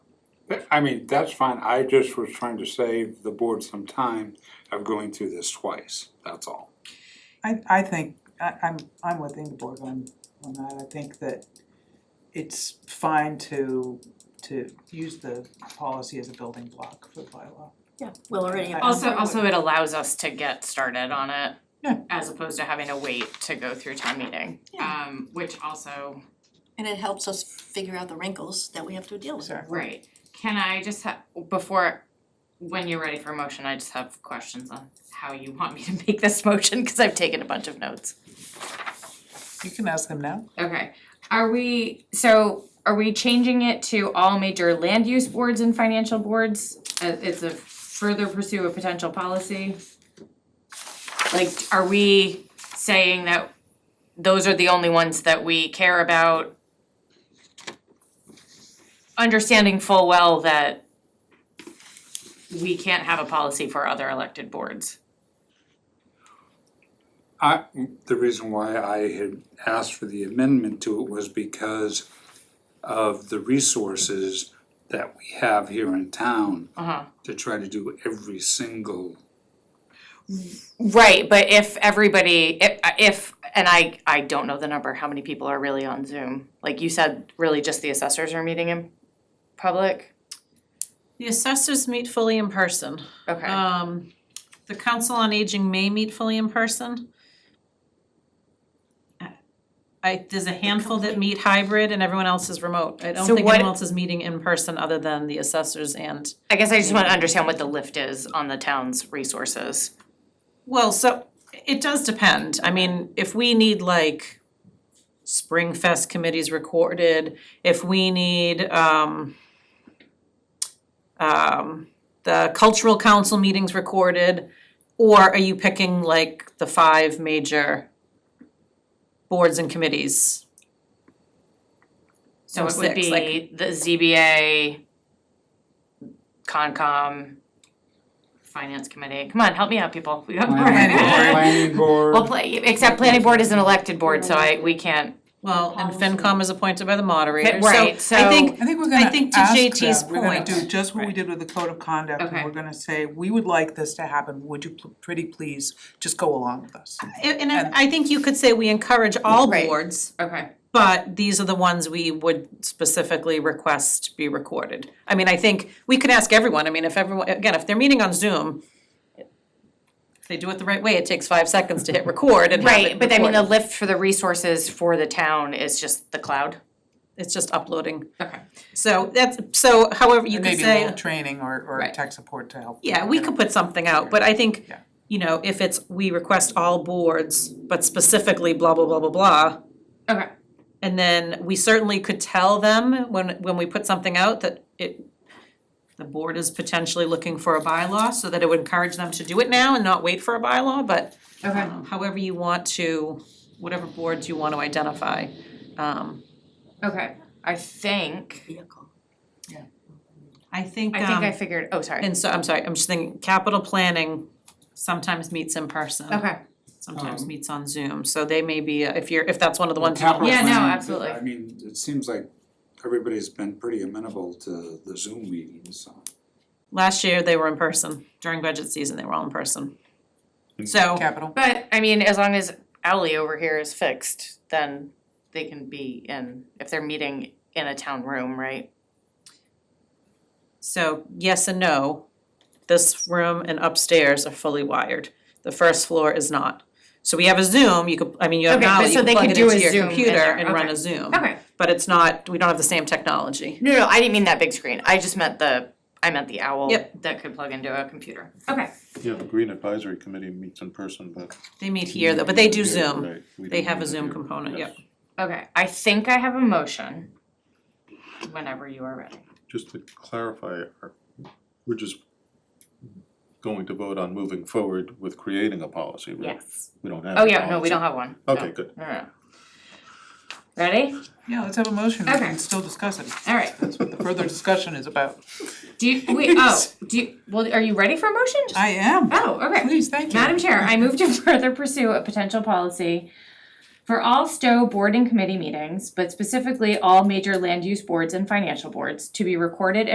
I mean, that's fine, I just was trying to save the board some time of going through this twice, that's all. I I think, I I'm I'm with Ingeborg on on that, I think that it's fine to to use the policy as a building block for the bylaw. Yeah, we'll already have. Also, also it allows us to get started on it. Yeah. As opposed to having to wait to go through town meeting. Yeah. Um, which also, And it helps us figure out the wrinkles that we have to deal with. Exactly. right, can I just have, before, when you're ready for a motion, I just have questions on how you want me to make this motion, cause I've taken a bunch of notes. You can ask them now. Okay, are we, so are we changing it to all major land use boards and financial boards? Uh, it's a further pursue a potential policy? Like, are we saying that those are the only ones that we care about? Understanding full well that we can't have a policy for other elected boards. I, the reason why I had asked for the amendment to it was because of the resources that we have here in town Uh-huh. to try to do every single, Right, but if everybody, if, if, and I, I don't know the number, how many people are really on Zoom? Like you said, really just the assessors are meeting in public? The assessors meet fully in person. Okay, Um, the council on aging may meet fully in person. I, there's a handful that meet hybrid and everyone else is remote. I don't So think what- anyone else is meeting in person other than the assessors and, I guess I just wanna understand what the lift is on the town's resources. well, so it does depend. I mean, if we need like Spring Fest committees recorded, if we need, um, um, the cultural council meetings recorded, or are you picking like the five major boards and committees? So Or it would six, like- be the ZBA, Concom, Finance Committee, come on, help me out, people, we got more. planning board, planning board. Well, play, except planning board is an elected board, so I, we can't, Well, and FinCom is appointed by the moderator, Right, so I think, I think we're I gonna think to ask JT's them, we're gonna point. do just what we did with the code of conduct, and Okay. we're gonna say, we would like this to happen, would you pl- pretty please just go along with us? and and I I think you could say we encourage all Right. boards okay. But these are the ones we would specifically request be recorded. I mean, I think we could ask everyone, I mean, if everyone, again, if they're meeting on Zoom, if they do it the right way, it takes five seconds to hit record and have it Right, but I mean, the recorded. lift for the resources for the town is just the cloud. It's just uploading. Okay. So that's, so however you And could maybe say. a little training or or Right. tech support to help. Yeah, we could put something out, but I think, Yeah. you know, if it's, we request all boards, but specifically blah, blah, blah, blah, blah. Okay. And then we certainly could tell them when, when we put something out that it, the board is potentially looking for a bylaw, so that it would encourage them to do it now and not wait for a bylaw, but Okay. um, however you want to, whatever boards you want to identify. Um, Okay, I think, Vehicle. I think, I think I um, figured, oh, sorry. and so, I'm sorry, I'm just thinking, capital planning sometimes meets in person. Okay, sometimes Um, meets on Zoom, so they may be, uh, if you're, if that's one of the ones. you Capital Yeah, no, planning, absolutely. I mean, it seems like everybody's been pretty amenable to the Zoom meetings, so. Last year, they were in person, during budget season, they were all in person. So, Capital, but I mean, as long as Owly over here is fixed, then they can be in, if they're meeting in a town room, right? so yes and no, this room and upstairs are fully wired, the first floor is not. So we have a Zoom, you could, I mean, you have Okay, but now, so you they can plug could it do a into Zoom your in computer there, and run okay. a Zoom, Okay, but it's not, we don't have the same technology. no, no, I didn't mean that big screen, I just meant the, I meant the owl Yep. that could plug into a computer. Okay, Yeah, the Green Advisory Committee meets in person, but. They meet here though, but they do Yeah, Zoom, right, we they don't have a do Zoom here. component, Yes. yep. okay, I think I have a motion whenever you are ready. Just to clarify, are- we're just going to vote on moving forward with creating a policy, right? Yes. We don't have. Oh, a yeah, no, we policy. don't have one. No. Okay, good. No, no, no. Ready? yeah, let's have a motion, we Okay. can still discuss it, All right. that's what the further discussion is about. Do you, wait, oh, do you, well, are you ready for a motion? I am, Oh, okay. please, thank you. Madam Chair, I move to further pursue a potential policy for all Stowe board and committee meetings, but specifically all major land use boards and financial boards to be recorded